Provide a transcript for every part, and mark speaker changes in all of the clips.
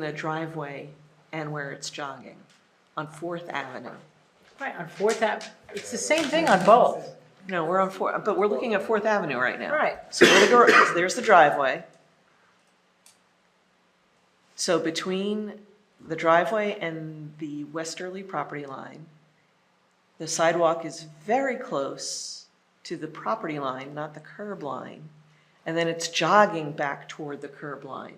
Speaker 1: the driveway and where it's jogging on Fourth Avenue.
Speaker 2: Right, on Fourth Ave, it's the same thing on both.
Speaker 1: No, we're on Fourth, but we're looking at Fourth Avenue right now.
Speaker 2: Right.
Speaker 1: So where the gar- there's the driveway. So between the driveway and the westerly property line, the sidewalk is very close to the property line, not the curb line. And then it's jogging back toward the curb line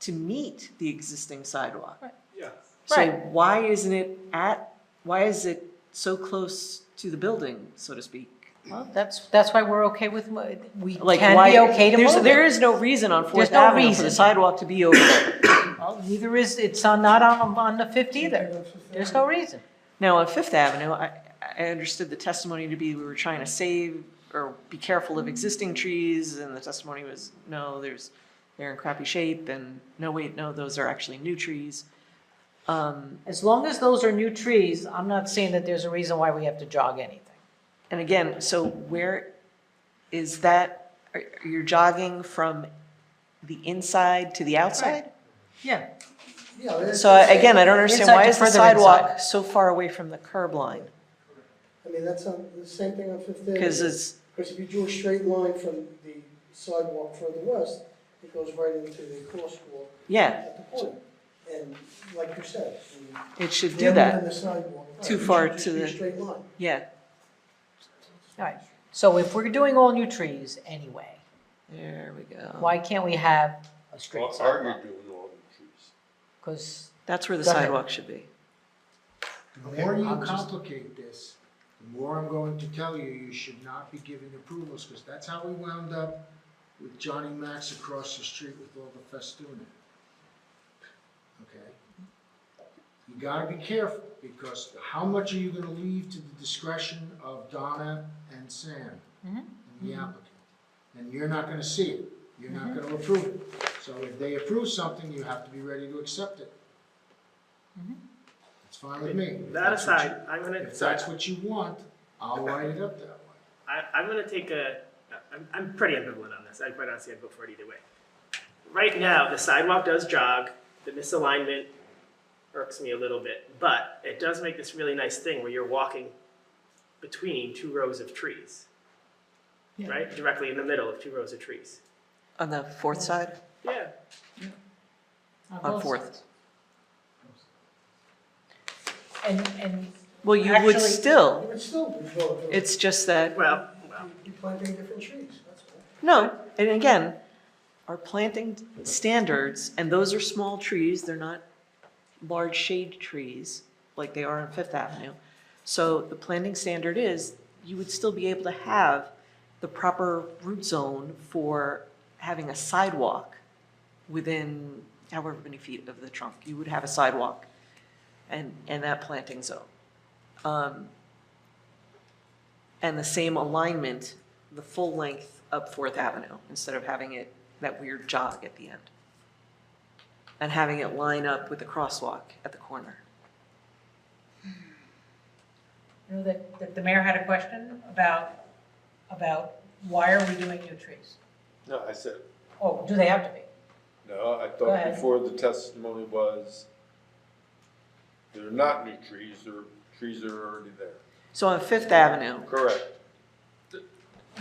Speaker 1: to meet the existing sidewalk.
Speaker 3: Yeah,
Speaker 1: So
Speaker 2: Right.
Speaker 1: why isn't it at, why is it so close to the building, so to speak?
Speaker 2: Well, that's, that's why we're okay with, mo- we
Speaker 1: Like
Speaker 2: can
Speaker 1: why-
Speaker 2: be okay to
Speaker 1: there's-
Speaker 2: move
Speaker 1: There
Speaker 2: it.
Speaker 1: is no reason on Fourth
Speaker 2: There's no
Speaker 1: Avenue for the
Speaker 2: reason.
Speaker 1: sidewalk to be over there.
Speaker 2: Well, Neither is, it's on- not on, on the Fifth either. There's no reason.
Speaker 1: Now, on Fifth Avenue, I, I understood the testimony to be we were trying to save or be careful of existing trees, and the testimony was, no, there's, they're in crappy shape, and no, wait, no, those are actually new trees. Um,
Speaker 2: As long as those are new trees, I'm not seeing that there's a reason why we have to jog anything.
Speaker 1: And again, so where is that, are- you're jogging from the inside to the outside?
Speaker 2: Yeah,
Speaker 4: Yeah, that's-
Speaker 1: So I- again, I don't understand, why
Speaker 2: Inside to
Speaker 1: is the
Speaker 2: further
Speaker 1: sidewalk so far away from the curb line?
Speaker 4: I mean, that's on, the same thing on Fifth Avenue.
Speaker 1: Because it's,
Speaker 4: Because if you drew a straight line from the sidewalk further west, it goes right into the crosswalk
Speaker 1: yeah,
Speaker 4: at the corner. And like you said. you-
Speaker 1: it should
Speaker 4: you
Speaker 1: do
Speaker 4: haven't done
Speaker 1: that,
Speaker 4: the sidewalk, right,
Speaker 1: Too
Speaker 4: it should
Speaker 1: far
Speaker 4: just
Speaker 1: to
Speaker 4: be a
Speaker 1: the-
Speaker 4: Straight line.
Speaker 1: yeah.
Speaker 2: all right. So if we're doing all new trees anyway,
Speaker 1: There we go.
Speaker 2: why can't we have a
Speaker 3: Well,
Speaker 2: straight
Speaker 3: are you
Speaker 2: sidewalk?
Speaker 3: doing all the trees?
Speaker 2: Because,
Speaker 1: That's where the
Speaker 2: Go ahead.
Speaker 1: sidewalk should be.
Speaker 5: The more you
Speaker 4: I'm just-
Speaker 5: complicate this, the more I'm going to tell you, you should not be giving approvals, because that's how we wound up with Johnny Max across the street with all the festooning. Okay? You gotta be careful, because how much are you gonna leave to the discretion of Donna and Sam?
Speaker 2: Mhm.
Speaker 5: And the applicant? And you're not gonna see it, you're not gonna approve it. So if they approve something, you have to be ready to accept it. It's fine with me. If
Speaker 6: That
Speaker 5: that's what you-
Speaker 6: aside, I'm gonna,
Speaker 5: If that's what you want, I'll write it up that way.
Speaker 6: I, I'm gonna take a, I'm, I'm pretty ambivalent on this, I quite honestly, I'd vote for it either way. Right now, the sidewalk does jog, the misalignment irks me a little bit, but it does make this really nice thing where you're walking between two rows of trees.
Speaker 2: Yeah.
Speaker 6: Right, directly in the middle of two rows of trees,
Speaker 1: On the fourth side?
Speaker 6: yeah.
Speaker 1: On
Speaker 2: both
Speaker 1: Fourth.
Speaker 2: sides. And, and
Speaker 1: Well, you would
Speaker 2: Actually-
Speaker 4: You
Speaker 1: still,
Speaker 4: would still be going to,
Speaker 1: it's just that,
Speaker 6: Well, well,
Speaker 4: you're planting different trees, that's all.
Speaker 1: no, and again, our planting standards, and those are small trees, they're not large shade trees like they are on Fifth Avenue. So the planting standard is, you would still be able to have the proper root zone for having a sidewalk within however many feet of the trunk. You would have a sidewalk and, and that planting zone. Um, And the same alignment, the full length up Fourth Avenue, instead of having it, that weird jog at the end. And having it line up with the crosswalk at the corner.
Speaker 2: You know, that, that the mayor had a question about, about why are we doing new trees?
Speaker 3: No, I said,
Speaker 2: Oh, do they have to be?
Speaker 3: no, I
Speaker 2: Go
Speaker 3: thought
Speaker 2: ahead.
Speaker 3: before the testimony was, they're not new trees, they're, trees that are already there.
Speaker 1: So on Fifth Avenue,
Speaker 3: Correct.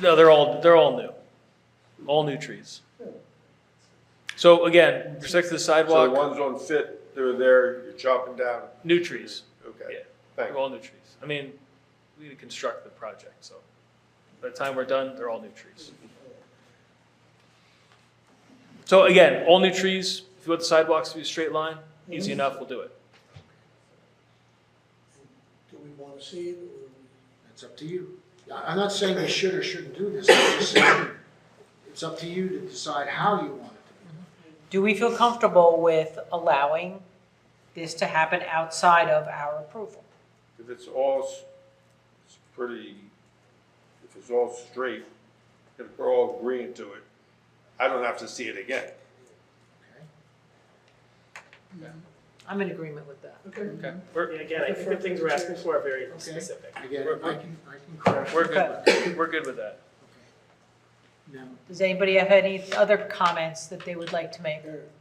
Speaker 7: No, they're all, they're all new, all new trees. So again, with respect to the
Speaker 3: So the
Speaker 7: sidewalk,
Speaker 3: ones on Fit, they're there, you're chopping down.
Speaker 7: new trees, yeah,
Speaker 3: Okay,
Speaker 7: they're
Speaker 3: thanks.
Speaker 7: all new trees. I mean, we need to construct the project, so by the time we're done, they're all new trees. So again, all new trees, if you want the sidewalks to be a straight line, easy enough, we'll do it.
Speaker 4: Do we want to see it or?
Speaker 5: It's up to you. I- I'm not saying you should or shouldn't do this, I'm just saying it's up to you to decide how you want it to be.
Speaker 2: Do we feel comfortable with allowing this to happen outside of our approval?
Speaker 3: If it's all, s- it's pretty, if it's all straight, and we're all agreeing to it, I don't have to see it again.
Speaker 2: I'm in agreement with that.
Speaker 4: Okay.
Speaker 7: We're,
Speaker 6: yeah, again, I think the things we're asking for are very specific.
Speaker 5: Again, I can, I can correct.
Speaker 7: we're good, we're good with that.
Speaker 5: Now,
Speaker 2: Does anybody have any other comments that they would like to make?
Speaker 4: Eric,